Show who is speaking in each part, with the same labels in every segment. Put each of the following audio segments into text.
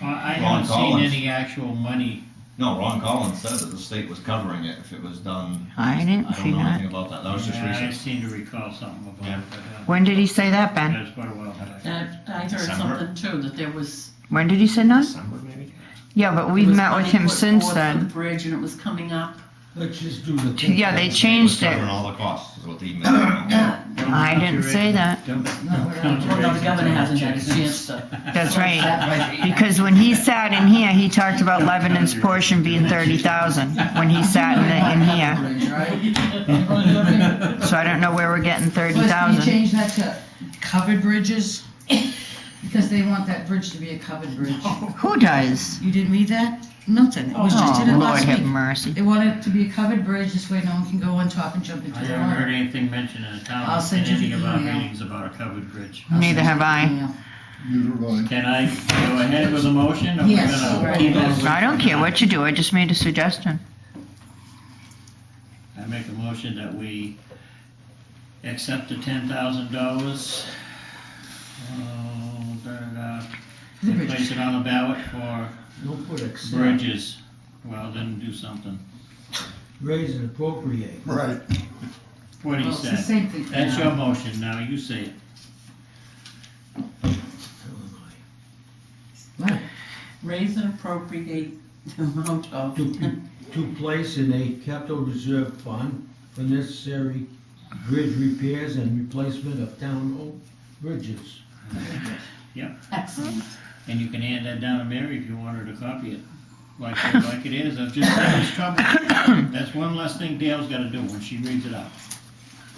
Speaker 1: I
Speaker 2: Ron
Speaker 1: haven't seen
Speaker 2: Collins.
Speaker 1: any actual money.
Speaker 2: No, Ron Collins said that the state was covering it if it was done.
Speaker 3: I didn't see
Speaker 2: I don't know
Speaker 3: that.
Speaker 2: anything about that, that was just
Speaker 1: Yeah, I
Speaker 2: recent.
Speaker 1: seem to recall something about
Speaker 2: Yeah.
Speaker 1: it, but, uh,
Speaker 3: When did he say that, Ben?
Speaker 1: it was quite a while back.
Speaker 4: That, I heard
Speaker 2: December.
Speaker 4: something too, that there was.
Speaker 3: When did he say that?
Speaker 2: December maybe?
Speaker 3: Yeah, but
Speaker 4: there
Speaker 3: we've
Speaker 4: was
Speaker 3: met with
Speaker 4: money
Speaker 3: him
Speaker 4: put
Speaker 3: since
Speaker 4: forth for the
Speaker 3: then.
Speaker 4: Bridge and it was coming up.
Speaker 5: Let's just do the. thing.
Speaker 3: Yeah, they
Speaker 2: The state was
Speaker 3: changed it.
Speaker 2: Covering all the costs is what the email. meant.
Speaker 1: Don't
Speaker 3: I
Speaker 1: count
Speaker 3: didn't
Speaker 1: your
Speaker 3: say
Speaker 1: eggs-
Speaker 3: that.
Speaker 1: don't-
Speaker 5: No,
Speaker 1: don't
Speaker 5: we're
Speaker 1: count
Speaker 5: not-
Speaker 1: your
Speaker 4: Well, no,
Speaker 1: eggs
Speaker 4: the governor
Speaker 1: until
Speaker 4: hasn't had a
Speaker 1: it's-
Speaker 4: chance to.
Speaker 3: That's right. Because when he sat in here, he talked about Lebanon's portion being thirty thousand, when he sat in, the- in here. So I don't know where we're getting thirty
Speaker 6: Was- Can you
Speaker 3: thousand.
Speaker 6: change that to covered bridges? Because they want that bridge to be a covered bridge.
Speaker 3: Who does?
Speaker 6: You didn't read that? Nothing, it was just
Speaker 3: Oh,
Speaker 6: in it
Speaker 3: Lord
Speaker 6: last
Speaker 3: have
Speaker 6: week.
Speaker 3: mercy.
Speaker 6: They want it to be a covered bridge, this way no one can go on top and jump into
Speaker 1: I
Speaker 6: the
Speaker 1: haven't heard
Speaker 6: water.
Speaker 1: anything mentioned in the town,
Speaker 6: I'll
Speaker 1: in
Speaker 6: send you
Speaker 1: any
Speaker 6: the
Speaker 1: of our
Speaker 6: email.
Speaker 1: meetings about a covered bridge.
Speaker 3: Neither have I.
Speaker 6: Yeah.
Speaker 5: You're right.
Speaker 1: Can I go ahead with a motion? or we're
Speaker 6: Yes,
Speaker 1: gonna
Speaker 6: right.
Speaker 1: keep it?
Speaker 3: I don't care what you do, I just made a suggestion.
Speaker 1: I make a motion that we accept the ten thousand dollars. uh,
Speaker 6: The
Speaker 1: And
Speaker 6: bridge.
Speaker 1: place it on the ballot for
Speaker 5: Don't put accept,
Speaker 1: bridges. Well, then do something.
Speaker 5: raise and appropriate.
Speaker 2: Right.
Speaker 1: What he
Speaker 6: Well, it's the
Speaker 1: said.
Speaker 6: same thing. for
Speaker 1: That's
Speaker 6: now.
Speaker 1: your motion, now you say it.
Speaker 6: Right.
Speaker 4: Raise and appropriate the amount of
Speaker 5: To, to place in a capital reserve fund for necessary bridge repairs and replacement of town-owned bridges.
Speaker 4: excellent.
Speaker 1: And you can hand that down to Mary if you want her to copy it, like, like it is, I've just had this trouble. That's one less thing Dale's gotta do when she reads it out.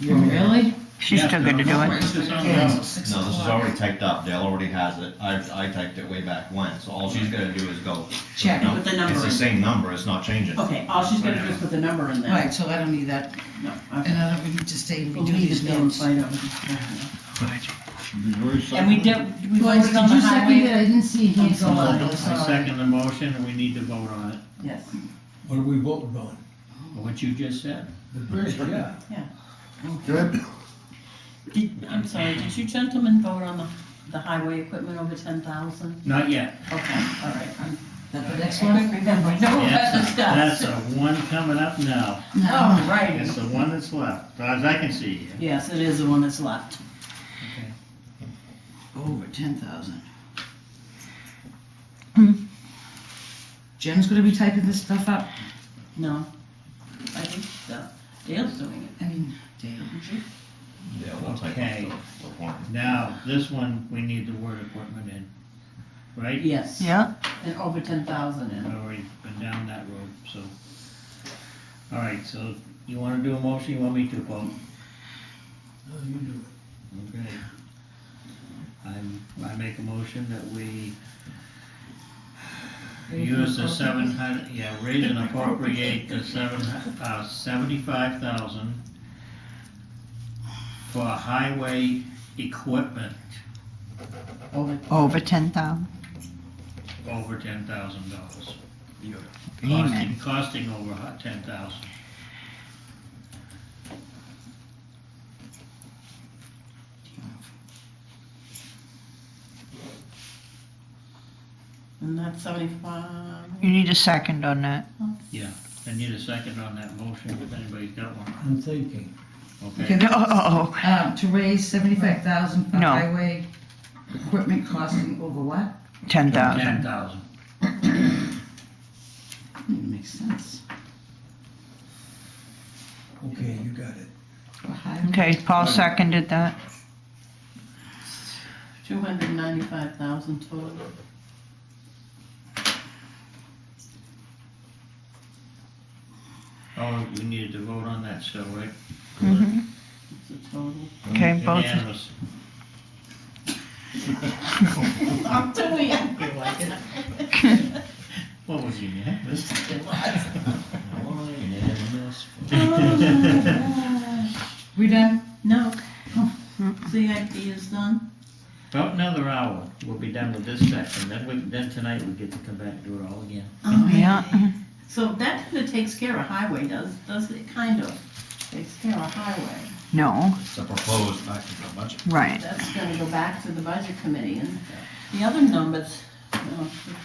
Speaker 6: Oh, Really?
Speaker 3: She's
Speaker 1: Yeah,
Speaker 3: still good to do
Speaker 1: Put
Speaker 3: it.
Speaker 1: this on the
Speaker 6: Okay,
Speaker 1: ballot.
Speaker 6: so six
Speaker 2: No, this is
Speaker 6: o'clock.
Speaker 2: already typed up, Dale already has it, I, I typed it way back when, so all she's gonna do is go.
Speaker 6: Check.
Speaker 2: No,
Speaker 4: Put the Oh. number
Speaker 2: It's the
Speaker 4: in.
Speaker 2: same number, it's not changing.
Speaker 4: Okay, all she's gonna do is put the number in there.
Speaker 6: Right, so I don't need that,
Speaker 4: No,
Speaker 6: and
Speaker 4: okay.
Speaker 6: I don't, we need to stay and
Speaker 4: We'll
Speaker 6: redo
Speaker 4: leave
Speaker 6: these
Speaker 4: it there and
Speaker 6: notes.
Speaker 4: find out. what it's for. And we did, we
Speaker 6: Boys,
Speaker 4: voted
Speaker 6: did
Speaker 4: on the
Speaker 6: you second it? I
Speaker 4: highway.
Speaker 6: didn't see
Speaker 4: I'm
Speaker 6: hands
Speaker 3: uh,
Speaker 6: go
Speaker 4: sorry.
Speaker 6: up, Oh, I'm
Speaker 1: I
Speaker 6: sorry.
Speaker 1: second the motion, and we need to vote on it,
Speaker 4: Yes,
Speaker 5: What are we voting on?
Speaker 1: what you just said.
Speaker 5: The bridge, yeah.
Speaker 4: Did- I'm sorry, did you gentlemen vote on the, the highway equipment over ten thousand?
Speaker 1: Not yet.
Speaker 4: Okay, all right, I'm.
Speaker 6: That the next
Speaker 4: I
Speaker 6: one?
Speaker 4: couldn't remember, no, that's
Speaker 1: That's,
Speaker 4: discussed.
Speaker 1: that's the one coming up now.
Speaker 4: Oh, right,
Speaker 1: It's the one that's left, as I can see.
Speaker 4: yes, it is the one that's left.
Speaker 6: Over ten thousand.
Speaker 3: Hmm.
Speaker 6: Jim's gonna be typing this stuff up.
Speaker 4: No, I think uh, Dale's doing
Speaker 6: I mean, damn.
Speaker 4: it, isn't she?
Speaker 2: Yeah, we'll type
Speaker 1: Okay.
Speaker 2: it, so we're fine.
Speaker 1: Now, this one, we need the word equipment in, right?
Speaker 4: Yes.
Speaker 3: Yeah,
Speaker 4: And over ten thousand
Speaker 1: I've
Speaker 4: and,
Speaker 1: already been down that road, so. All right, so you wanna do a motion, you want me to, Paul?
Speaker 5: Oh, you do it.
Speaker 1: Okay. I'm, I make a motion that we use the seven hundred, yeah, raise and appropriate the seven, hu- uh, seventy-five thousand for highway equipment
Speaker 4: over,
Speaker 3: over ten thousand.
Speaker 1: over ten thousand dollars. Costing,
Speaker 3: Amen.
Speaker 1: costing over ten thousand.
Speaker 4: and that's seventy-five.
Speaker 3: You need a second on that.
Speaker 1: I need a second on that motion, if anybody's got one.
Speaker 5: I'm thinking.
Speaker 1: Okay,
Speaker 6: Okay.
Speaker 3: Oh,
Speaker 6: Um, to raise seventy-five thousand for
Speaker 3: No.
Speaker 6: highway equipment costing over what?
Speaker 3: ten thousand.
Speaker 1: ten thousand.
Speaker 6: Hmm, Makes sense.
Speaker 5: Okay, you got it.
Speaker 6: For highway-
Speaker 3: Okay, Paul seconded that.
Speaker 4: Two hundred ninety-five thousand total.
Speaker 1: Oh, we needed to vote on that still, right?
Speaker 3: Mhm.
Speaker 4: It's a total.
Speaker 3: Okay, both.
Speaker 1: Unanimous.
Speaker 4: I'm doing it. I feel like it.
Speaker 1: What was unanimous?
Speaker 4: It was.
Speaker 2: Unanimous.
Speaker 6: We done?
Speaker 4: No. CIP is done.
Speaker 1: About another hour, we'll be done with this section, then we, then tonight we get to come back and do it all again.
Speaker 3: Oh, Yeah.
Speaker 4: So that kinda takes care of highway, does, does it kind of takes care of highway.
Speaker 3: No,
Speaker 2: It's a proposed back to the budget.
Speaker 3: right.
Speaker 4: That's gonna go back to the budget committee and the other numbers, you know,